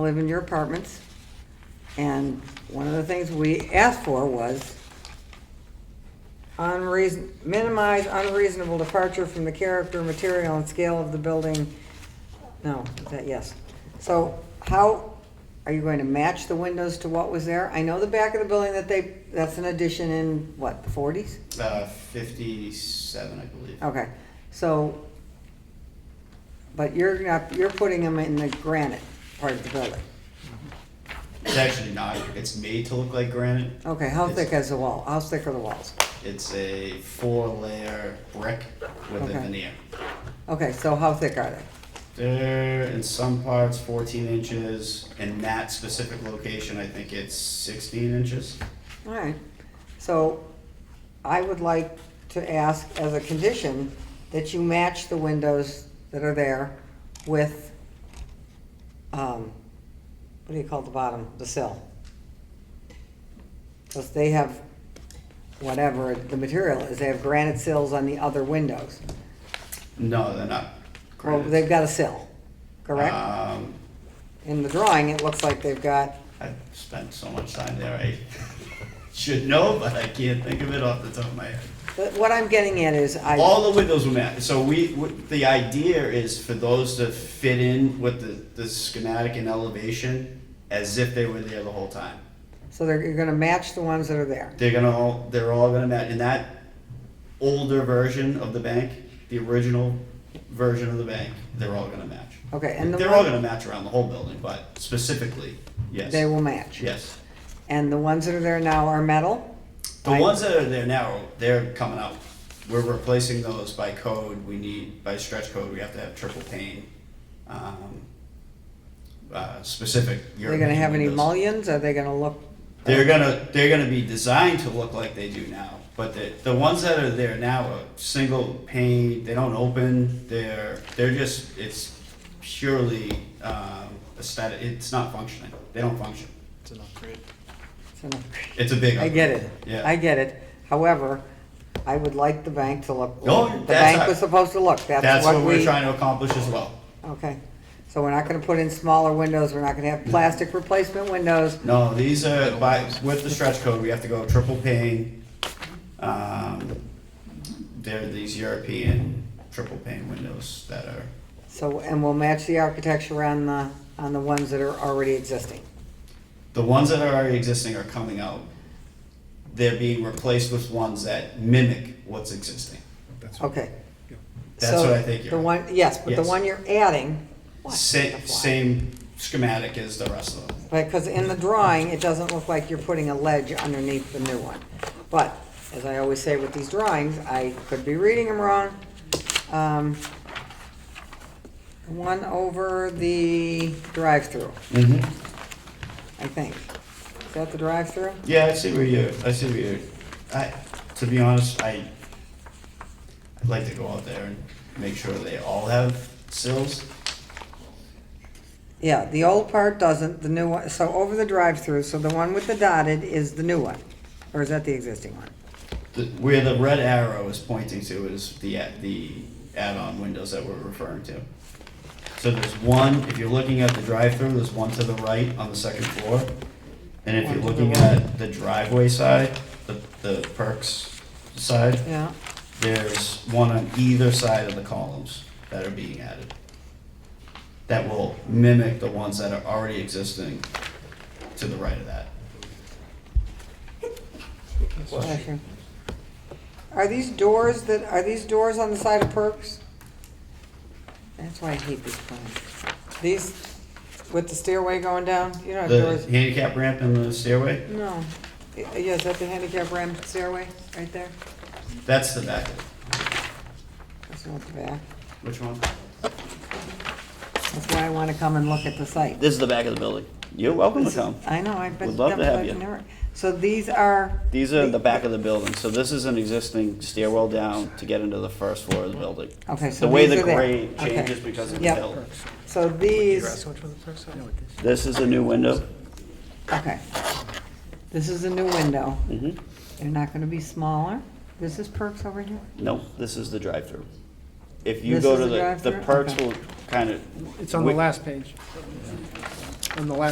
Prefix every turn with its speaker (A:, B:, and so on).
A: live in your apartments. And one of the things we asked for was unreason, minimize unreasonable departure from the character, material, and scale of the building. No, is that, yes. So how, are you going to match the windows to what was there? I know the back of the building that they, that's an addition in, what, the forties?
B: Uh, fifty-seven, I believe.
A: Okay, so, but you're not, you're putting them in the granite part of the building.
B: It's actually not, it's made to look like granite.
A: Okay, how
B: It's-
A: thick is the wall? How thick are the walls?
B: It's a four-layer brick with
A: Okay.
B: a veneer.
A: Okay, so how thick are they?
B: They're in some parts fourteen inches, in that specific location, I think it's sixteen inches.
A: All right, so I would like to ask as a condition that you match the windows that are there with, um, what do you call the bottom, the sill? Because they have, whatever the material is, they have granite sills on the other windows.
B: No, they're not
A: Well,
B: granite.
A: they've got a sill, correct?
B: Um,
A: In the drawing, it looks like they've got,
B: I've spent so much time there, I should know, but I can't think of it off the top of my head.
A: but what I'm getting at is I.
B: All the windows were matched, so we, w- the idea is for those to fit in with the, the schematic and elevation as if they were there the whole time.
A: So they're, you're gonna match the ones that are there.
B: They're gonna all, they're all gonna match, in that older version of the bank, the original version of the bank, they're all gonna match.
A: Okay, and the
B: They're all
A: one,
B: gonna match around the whole building, but specifically,
A: they
B: yes,
A: will match.
B: yes.
A: And the ones that are there now are metal?
B: The
A: I-
B: ones that are there now, they're coming out. We're replacing those by code. We need, by stretch code, we have to have triple pane. um, uh, Specific.
A: They're gonna have any
B: multi.
A: mullions? Are they gonna look?
B: They're gonna, they're gonna be designed to look like they do now, but the, the ones that are there now are single pane, they don't open, they're, they're just, it's purely um, aesthetic, it's not functioning. They don't function.
C: It's an upgrade.
A: it's an upgrade.
B: It's a big.
A: I get it.
B: upgrade. Yeah.
A: I get it. However, I would like the bank to look,
B: No,
A: the
B: that's
A: bank
B: not-
A: was supposed to look. That's
B: That's
A: what
B: what
A: we.
B: we're trying to accomplish as well.
A: Okay, so we're not gonna put in smaller windows. We're not gonna have plastic replacement windows.
B: No, these are by, with the stretch code, we have to go triple pane. Um, they're these European triple pane windows that are,
A: So, and we'll match the architecture on the, on the ones that are already existing.
B: the ones that are already existing are coming out. They're being replaced with ones that mimic what's existing.
A: Okay.
B: That's
A: So
B: what I think you're-
A: The one, yes, but the
B: Yes.
A: one you're adding. what the
B: Same,
A: fly?
B: same schematic as the rest of them.
A: Because in the drawing, it doesn't look like you're putting a ledge underneath the new one. But, as I always say with these drawings, I could be reading them wrong. Um, the One over the drive-through,
B: Mm-hmm.
A: I think. Is that the drive-through?
B: Yeah, I see where you, I see where you, I, to be honest, I, I'd like to go out there and make sure they all have sills.
A: Yeah, the old part doesn't, the new one, so over the drive-through, so the one with the dotted is the new one? Or is that the existing one?
B: The- Where the red arrow is pointing to is the, a- the add-on windows that we're referring to. So there's one, if you're looking at the drive-through, there's one to the right on the second floor. And if you're
A: One to the
B: looking
A: right.
B: at the driveway side, the, the perks side,
A: Yeah,
B: there's one on either side of the columns that are being added. That will mimic the ones that are already existing to the right of that.
A: bless you. Are these doors that, are these doors on the side of Perks? That's why I hate these plans. These, with the stairway going down, you don't have
B: The
A: doors?
B: handicap ramp and the stairway,
A: No. Y- Yeah, is that the handicap ramp stairway, right there?
B: that's the back.
A: That's not the back.
B: Which one?
A: That's why I want to come and look at the site.
D: This is the back of the building. You're welcome to come.
A: I know, I've been.
D: We'd love to have you.
A: never- So these are,
D: These are the back of the building, so this is an existing stairwell down to get into the first floor of the building.
A: okay, so
D: The way
A: these
D: the
A: are there.
D: grade
A: Okay.
D: changes because of the
A: Yep.
D: hill.
A: So these,
D: This is the new window.
A: okay. This is a new window.
D: Mhm.
A: They're not going to be smaller. This is Perks over here?
D: No, this is the drive-through. If you
A: This
D: go
A: is
D: to
A: the
D: the, the
A: drive-through?
D: perks
A: Okay.
D: will kind of.
C: It's on the last page.
D: on the last